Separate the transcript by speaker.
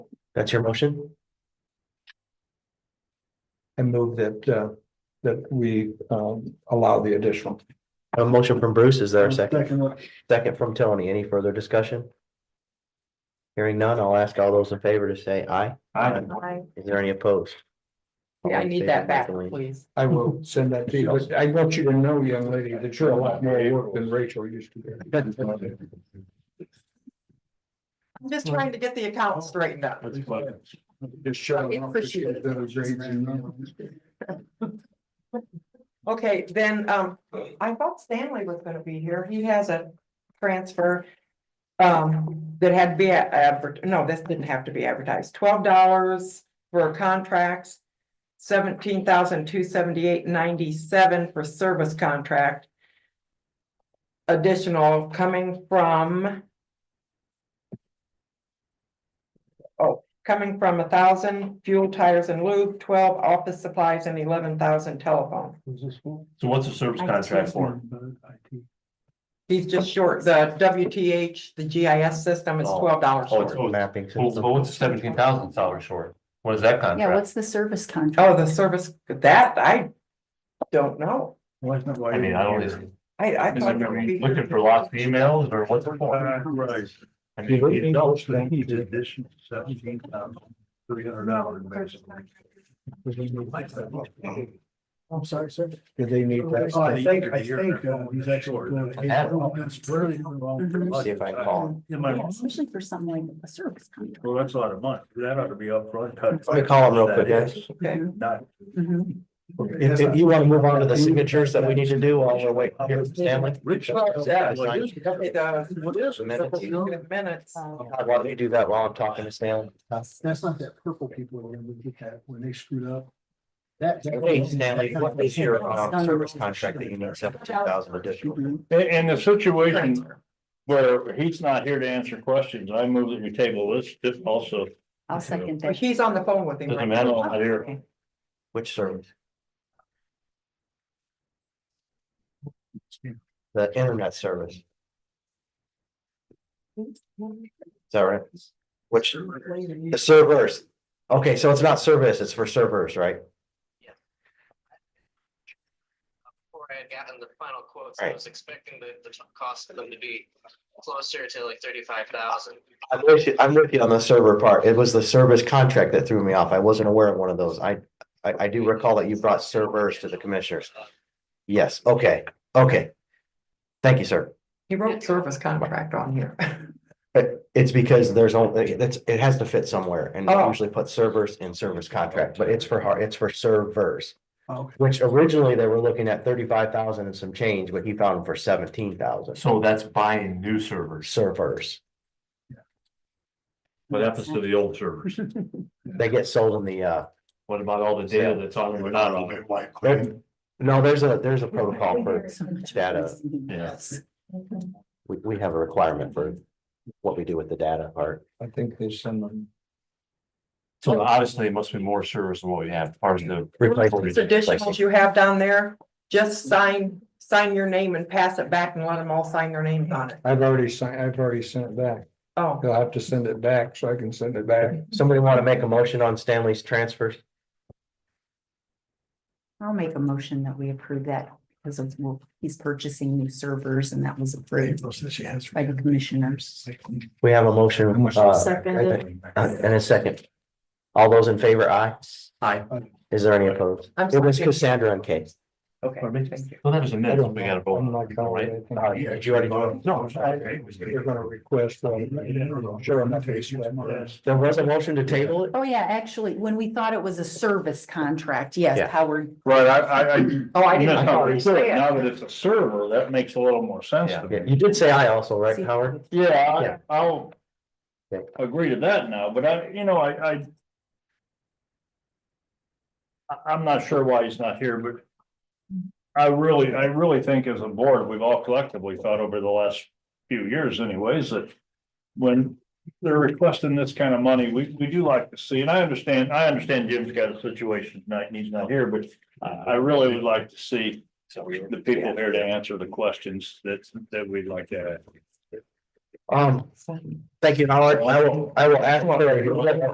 Speaker 1: That's your motion?
Speaker 2: and move that, uh, that we, um, allow the additional.
Speaker 1: A motion from Bruce, is there a second?
Speaker 2: Second.
Speaker 1: Second from Tony, any further discussion? Hearing none, I'll ask all those in favor to say aye.
Speaker 2: I,
Speaker 3: I,
Speaker 1: Is there any opposed?
Speaker 3: I need that back,
Speaker 1: All in favor, make a lean.
Speaker 3: please.
Speaker 2: I will send that to you, but I want you to know, young lady, that you're a lot more work than Rachel used to be.
Speaker 3: I'm just trying to get the account straightened up.
Speaker 2: Just shut it off.
Speaker 3: Appreciate it.
Speaker 2: That was great, you know.
Speaker 3: Okay, then, um, I thought Stanley was gonna be here. He has a transfer. Um, that had to be adver, no, this didn't have to be advertised. Twelve dollars for contracts. Seventeen thousand two seventy-eight ninety-seven for service contract. Additional coming from. Oh, coming from a thousand fuel tires and lube, twelve office supplies and eleven thousand telephone.
Speaker 4: So what's the service contract for?
Speaker 3: He's just short, the WTH, the GIS system is
Speaker 4: Oh.
Speaker 3: twelve dollars
Speaker 4: Oh, it's-
Speaker 3: short.
Speaker 4: oh, it's-
Speaker 1: Mapping.
Speaker 4: Well,
Speaker 1: system.
Speaker 4: but what's seventeen thousand dollars short? What is that
Speaker 5: Yeah,
Speaker 4: contract?
Speaker 5: what's the service contract?
Speaker 3: Oh, the service, that I don't know.
Speaker 4: I mean, I don't, is it-
Speaker 3: I, I
Speaker 4: is
Speaker 3: thought. it would be-
Speaker 4: it looking for lost emails or what's it for?
Speaker 6: Uh,
Speaker 5: right.
Speaker 4: I mean, you know,
Speaker 2: Three hundred dollars. I'm sorry, sir. Did they need that?
Speaker 7: Oh, I think, I think, uh, he's actually. going to-
Speaker 4: Adam.
Speaker 7: Oh, that's really wrong.
Speaker 1: See if I can call him.
Speaker 7: Yeah, my-
Speaker 5: Yeah, Especially for something like a service contract.
Speaker 7: Well, that's a lot of money. That ought to be upfront.
Speaker 1: Let me call him real quick, guys.
Speaker 3: Okay.
Speaker 7: Not.
Speaker 5: Mhm.
Speaker 1: If, if you want to move on to the signatures that we need to do, while we're waiting here, Stanley.
Speaker 7: Rich.
Speaker 1: Yeah, it's
Speaker 7: What is
Speaker 3: It does.
Speaker 7: it?
Speaker 1: Minutes.
Speaker 3: In Minutes.
Speaker 5: uh,
Speaker 1: Why don't you do that while I'm talking to Stanley?
Speaker 7: That's not that purple people remember that had when they screwed up. That. that-
Speaker 1: Hey, Stanley, what is your, um, service contract that you need seventeen thousand additional?
Speaker 6: And, and the situation where he's not here to answer questions, I move that we table this, this also,
Speaker 5: I'll second
Speaker 3: But
Speaker 5: that.
Speaker 3: He's on the phone with him.
Speaker 6: doesn't
Speaker 3: right
Speaker 6: matter,
Speaker 3: now.
Speaker 6: I'm not here.
Speaker 1: Which service? The internet service, is that right? Which, the servers, okay, so it's not service, it's for servers, right?
Speaker 8: before I had gotten the final quotes,
Speaker 1: Right.
Speaker 8: I was expecting the, the cost of them to be closer to like thirty-five thousand.
Speaker 1: I'm with you, I'm with you on the server part, it was the service contract that threw me off, I wasn't aware of one of those, I, I, I do recall that you brought servers to the commissioners. Yes, okay, okay. Thank you, sir.
Speaker 3: He wrote service contract on here.
Speaker 1: It- it's because there's only, that's, it has to fit somewhere and they
Speaker 3: Oh.
Speaker 1: usually put servers in service contract, but it's for hard, it's for servers.
Speaker 7: Okay.
Speaker 1: Which originally they were looking at thirty-five thousand and some change, but he found them for seventeen thousand
Speaker 4: So that's buying new servers.
Speaker 1: servers.
Speaker 6: What happens to the old servers?
Speaker 1: They get sold in the, uh,
Speaker 6: What about all the data that's on them or not on it?
Speaker 1: there- no, there's a, there's a protocol for,
Speaker 5: So much
Speaker 1: data.
Speaker 5: choice in the
Speaker 6: Yeah.
Speaker 5: apps.
Speaker 1: we, we have a requirement for what we do with the data part.
Speaker 2: I think there's someone.
Speaker 6: So
Speaker 3: Oh.
Speaker 6: honestly, it must be more service than what we have, as far as the.
Speaker 1: Replacement.
Speaker 3: Those additionals you have down there, just sign, sign your name and pass it back and let them all sign their names on it.
Speaker 2: I've already signed, I've already sent it back.
Speaker 3: Oh,
Speaker 2: He'll have to send it back so I can send it back.
Speaker 1: Somebody want to make a motion on Stanley's transfers?
Speaker 5: I'll make a motion that we approve that because of, well, he's purchasing new servers and that was approved by the commissioners.
Speaker 1: We have a motion, uh,
Speaker 5: Second.
Speaker 1: and a second. All those in favor, aye?
Speaker 4: Aye.
Speaker 1: Is there any opposed?
Speaker 3: I'm
Speaker 1: It was
Speaker 3: sorry.
Speaker 1: Cassandra and Kate.
Speaker 3: okay,
Speaker 4: Pardon me?
Speaker 3: thank you.
Speaker 6: Well, that was a
Speaker 2: I
Speaker 6: minute,
Speaker 2: don't
Speaker 6: we gotta
Speaker 2: know.
Speaker 6: vote,
Speaker 2: I'm
Speaker 6: on
Speaker 2: not
Speaker 6: it,
Speaker 2: calling
Speaker 6: right?
Speaker 2: anything.
Speaker 1: Uh, did you already do it?
Speaker 2: No, you're gonna request. um, Sure, I'm not facing that.
Speaker 1: There was a motion to table it?
Speaker 5: Oh, yeah, actually, when we thought it was a service contract, yes,
Speaker 1: Yeah.
Speaker 5: Howard,
Speaker 6: Right, I, I, I.
Speaker 3: Oh, I
Speaker 6: That's
Speaker 3: didn't.
Speaker 6: how
Speaker 3: know.
Speaker 6: we put it. Now that it's a server, that makes a little more sense to
Speaker 1: Yeah,
Speaker 6: me.
Speaker 1: you did say aye also, right,
Speaker 5: See-
Speaker 1: Howard? Yeah.
Speaker 6: Yeah, I, I'll
Speaker 1: Okay.
Speaker 6: agree to that now, but I, you know, I, I. I, am not sure why he's not here, but. I really, I really think as a board, we've all collectively thought over the last few years anyways, that. When they're requesting this kind of money, we, we do like to see, and I understand, I understand Jim's got a situation tonight and he's not here, but. I, I really would like to see the people here to answer the questions that, that we'd like to ask.
Speaker 1: Um, thank you, Howard. I will, I will ask.